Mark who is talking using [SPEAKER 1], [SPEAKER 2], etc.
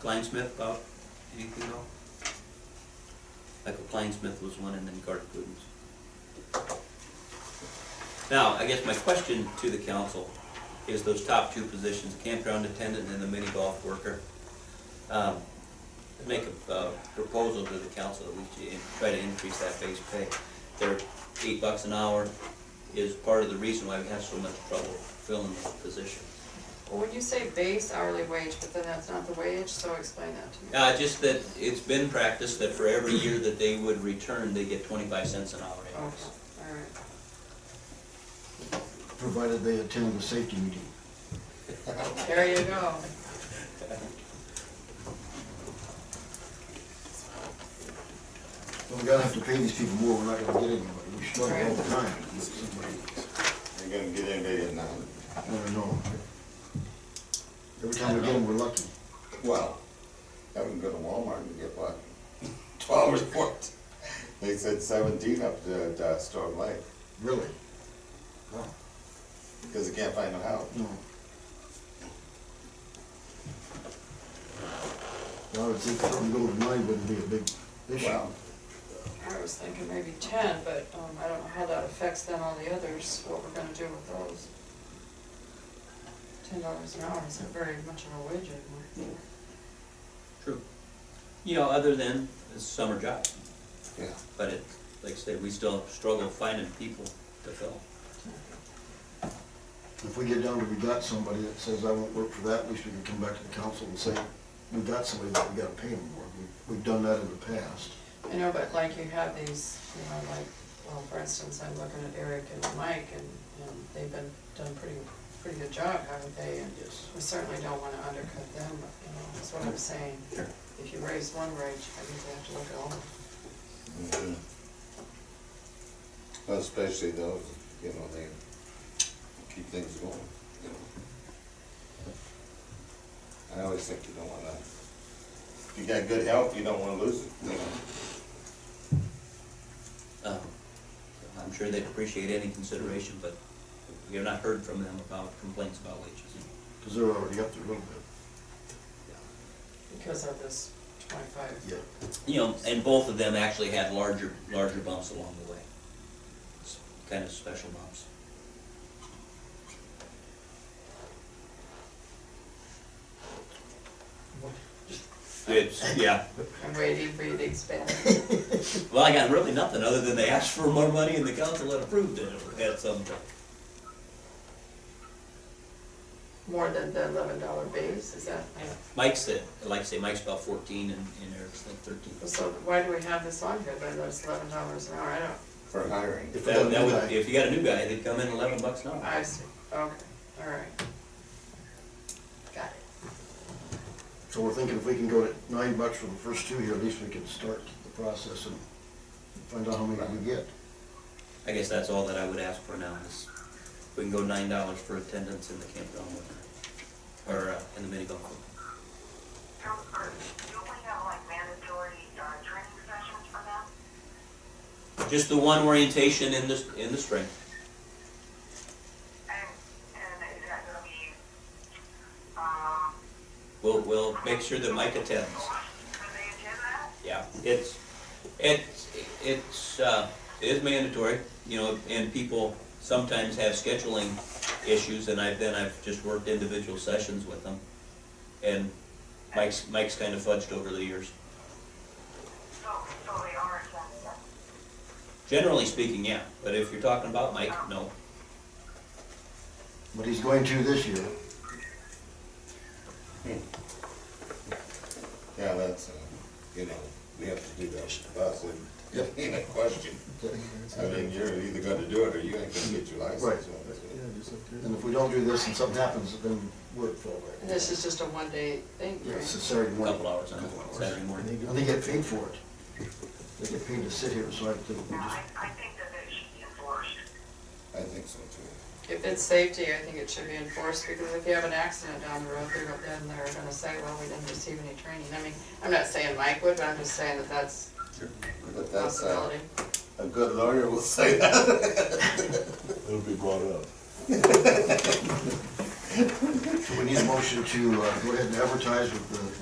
[SPEAKER 1] Klein Smith about anything at all? Michael Klein Smith was one, and then Garth Gooden's. Now, I guess my question to the council is those top two positions, campground attendant and the mini golf worker. Um, Make a uh, proposal to the council that we should try to increase that base pay. They're eight bucks an hour is part of the reason why we have so much trouble filling those positions.
[SPEAKER 2] Well, when you say base hourly wage, but then that's not the wage, so explain that to me.
[SPEAKER 1] Uh, just that it's been practiced that for every year that they would return, they get twenty-five cents an hour
[SPEAKER 2] Okay,
[SPEAKER 1] increase.
[SPEAKER 2] all right.
[SPEAKER 3] provided they attend the safety meeting.
[SPEAKER 2] There you go.
[SPEAKER 3] Well, we're gonna have to pay these people more, we're not gonna get anybody, we struggle all the time. with somebody.
[SPEAKER 4] Ain't gonna get anybody in now.
[SPEAKER 3] I don't know. Every time we get them, we're lucky.
[SPEAKER 4] Well, I haven't go to Walmart to get what? Twelve reports. They said seventeen up to, uh Storm Lake,
[SPEAKER 3] Really?
[SPEAKER 4] because they can't find no help.
[SPEAKER 3] No. I would think something go to nine wouldn't be a big issue.
[SPEAKER 4] Well,
[SPEAKER 2] I was thinking maybe ten, but, um, I don't know how that affects then all the others, what we're gonna do with those. Ten dollars an hour isn't very much of a wage anymore.
[SPEAKER 1] True. You know, other than the summer job,
[SPEAKER 4] yeah,
[SPEAKER 1] but it, like I said, we still struggle finding people to fill.
[SPEAKER 3] If we get down to we got somebody that says, I won't work for that, at least we can come back to the council and say, we got somebody that we gotta pay them more. We- We've done that in the past.
[SPEAKER 2] I know, but like you have these, you know, like, well, for instance, I'm looking at Eric and Mike, and, and they've been, done pretty, pretty good job, haven't they? And
[SPEAKER 3] Yes.
[SPEAKER 2] We certainly don't wanna undercut them, but, you know, that's what I'm saying.
[SPEAKER 4] Sure.
[SPEAKER 2] If you raise one wage, I think we have to look at all of them.
[SPEAKER 4] mhm. Well, Especially those, you know, they keep things going, you know. I always think you don't wanna, if you got good help, you don't wanna lose it, you know.
[SPEAKER 1] Um, I'm sure they'd appreciate any consideration, but we have not heard from them about complaints about wages.
[SPEAKER 3] Cause they're already up there a little bit.
[SPEAKER 2] because of this twenty-five.
[SPEAKER 3] Yeah.
[SPEAKER 1] You know, and both of them actually had larger, larger bumps along the way. It's Kind of special bumps. It's, yeah.
[SPEAKER 2] I'm waiting for you to expand.
[SPEAKER 1] Well, I got really nothing other than they asked for more money and the council had approved it at some point.
[SPEAKER 2] More than the eleven dollar base, is that,
[SPEAKER 1] Mike's at, like I say, Mike's about fourteen and, and Eric's like thirteen.
[SPEAKER 2] so why do we have this on here then, that's eleven dollars an hour, I don't,
[SPEAKER 4] For hiring.
[SPEAKER 3] If we got
[SPEAKER 1] That,
[SPEAKER 3] a
[SPEAKER 1] that
[SPEAKER 3] new
[SPEAKER 1] would,
[SPEAKER 3] guy,
[SPEAKER 1] if you got a new guy, they'd come in eleven bucks an hour.
[SPEAKER 2] I see, okay, all right. Got it.
[SPEAKER 3] so we're thinking if we can go to nine bucks for the first two here, at least we can start the process and find out how many we get.
[SPEAKER 1] I guess that's all that I would ask for now is, we can go nine dollars for attendance in the campground with, or, uh, in the mini golf. course.
[SPEAKER 5] Don't, um, do we have like mandatory, uh, training sessions for them?
[SPEAKER 1] Just the one orientation in the, in the spring.
[SPEAKER 5] And, and is that gonna be, um?
[SPEAKER 1] We'll, we'll make sure that Mike attends.
[SPEAKER 5] Can they attend that?
[SPEAKER 1] Yeah, it's, it's, it's, uh, it is mandatory, you know, and people sometimes have scheduling issues, and I've, then I've just worked individual sessions with them. And Mike's, Mike's kind of fudged over the years.
[SPEAKER 5] So, so they are attending that?
[SPEAKER 1] Generally speaking, yeah, but if you're talking about Mike, no.
[SPEAKER 3] But he's going to this year.
[SPEAKER 4] Yeah, that's, uh, you know, we have to do that with the bus, and it ain't a question. I mean, you're either gonna do it or you ain't gonna get your
[SPEAKER 3] Right.
[SPEAKER 4] license.
[SPEAKER 6] Yeah, just up there.
[SPEAKER 3] And if we don't do this and something happens, then we're full
[SPEAKER 2] And
[SPEAKER 3] right.
[SPEAKER 2] this is just a one-day thing,
[SPEAKER 3] Yeah, it's a
[SPEAKER 2] right?
[SPEAKER 3] Saturday morning.
[SPEAKER 1] Couple hours, I know, Saturday morning.
[SPEAKER 6] And they go-
[SPEAKER 3] And they get paid for it. They get paid to sit here, so I think we
[SPEAKER 5] Now,
[SPEAKER 3] just,
[SPEAKER 5] I, I think that it should be enforced.
[SPEAKER 4] I think so too.
[SPEAKER 2] If it's safety, I think it should be enforced, because if you have an accident down the road, they're, gonna- then they're gonna say, well, we didn't receive any training. I mean, I'm not saying Mike would, but I'm just saying that that's
[SPEAKER 4] But
[SPEAKER 2] a
[SPEAKER 4] that's, uh,
[SPEAKER 2] possibility.
[SPEAKER 4] a good lawyer will say that.
[SPEAKER 6] It'll be brought up.
[SPEAKER 3] so we need a motion to uh, go ahead and advertise with the